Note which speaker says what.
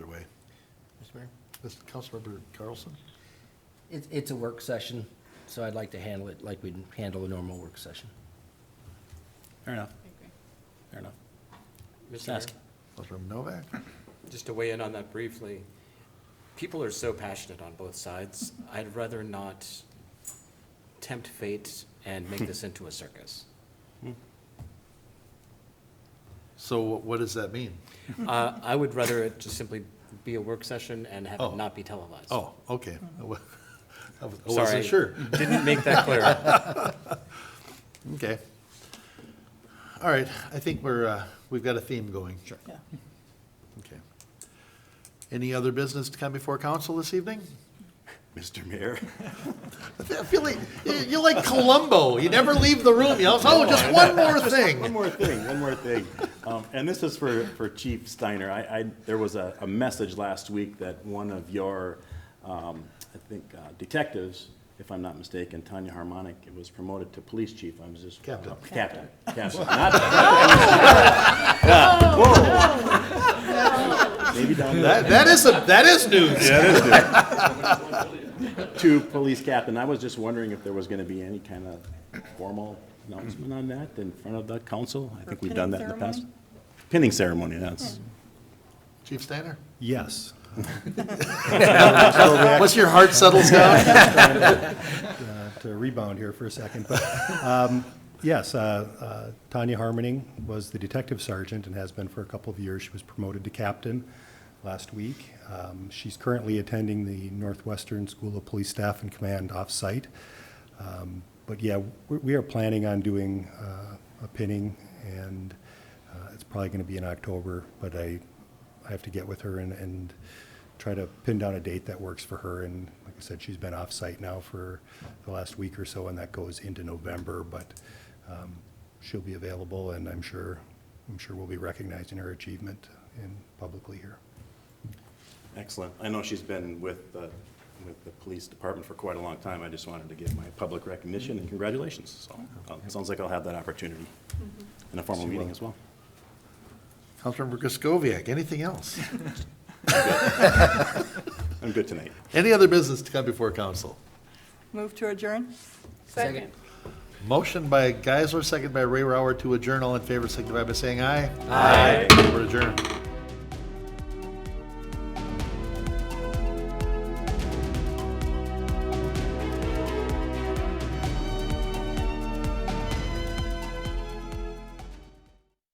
Speaker 1: Mr. Mayor? This Councilmember Carlson?
Speaker 2: It's, it's a work session, so I'd like to handle it like we'd handle a normal work session.
Speaker 3: Fair enough,
Speaker 4: I agree.
Speaker 3: fair enough.
Speaker 5: Mr. Mayor,
Speaker 3: Ask.
Speaker 1: Councilmember Novak?
Speaker 5: just to weigh in on that briefly, people are so passionate on both sides. I'd rather not tempt fate and make this into a circus.
Speaker 1: So wh- what does that mean?
Speaker 5: Uh, I would rather it just simply be a work session and have
Speaker 1: Oh.
Speaker 5: it not be televised.
Speaker 1: Oh, okay. I wa- I was- I
Speaker 5: Sorry.
Speaker 1: wasn't sure.
Speaker 5: Didn't make that clear.
Speaker 1: Okay. All right, I think we're, uh, we've got a theme going. Sure.
Speaker 3: Yeah.
Speaker 1: Okay. Any other business to come before council this evening?
Speaker 6: Mr. Mayor,
Speaker 1: I feel like, you- you're like Columbo, you never leave the room, you know, oh, just one more
Speaker 6: one
Speaker 1: thing.
Speaker 6: more thing, one more thing. Um, And this is for, for Chief Steiner. I, I, there was a, a message last week that one of your, um, I think uh, detectives, if I'm not mistaken, Tanya Harmonic, it was promoted to police chief. I was just. Oh,
Speaker 1: Captain.
Speaker 6: Captain, captain, not, maybe down the
Speaker 1: That, that is, a- that is news.
Speaker 6: to police captain. I was just wondering if there was going to be any kind of formal announcement on that in front of the council. I think we've done that in the past. Pinning ceremony, that's.
Speaker 1: Chief Steiner?
Speaker 7: Yes.
Speaker 1: Once your heart settles down?
Speaker 7: To rebound here for a second, but, um, yes, uh, uh, Tanya Harmoning was the detective sergeant and has been for a couple of years. She was promoted to captain last week. Um, She's currently attending the Northwestern School of Police Staff and Command off-site. Um, But yeah, we- we are planning on doing uh, a pinning, and uh, it's probably going to be in October, but I, I have to get with her and, and try to pin down a date that works for her. And like I said, she's been off-site now for the last week or so, and that goes into November, but um, she'll be available, and I'm sure, I'm sure we'll be recognizing her achievement in, publicly here.
Speaker 6: Excellent. I know she's been with, the- with the police department for quite a long time. I just wanted to give my public recognition and congratulations. So uh, it sounds like I'll have that opportunity in a formal meeting as well.
Speaker 1: Councilmember Griscoviac, anything else?
Speaker 6: I'm good tonight.
Speaker 1: Any other business to come before council?
Speaker 8: Move to adjourn?
Speaker 4: Second.
Speaker 1: Motion by Geisler, second by Ray Rower to adjourn. All in favor, signify by saying aye. Aye. We're adjourned.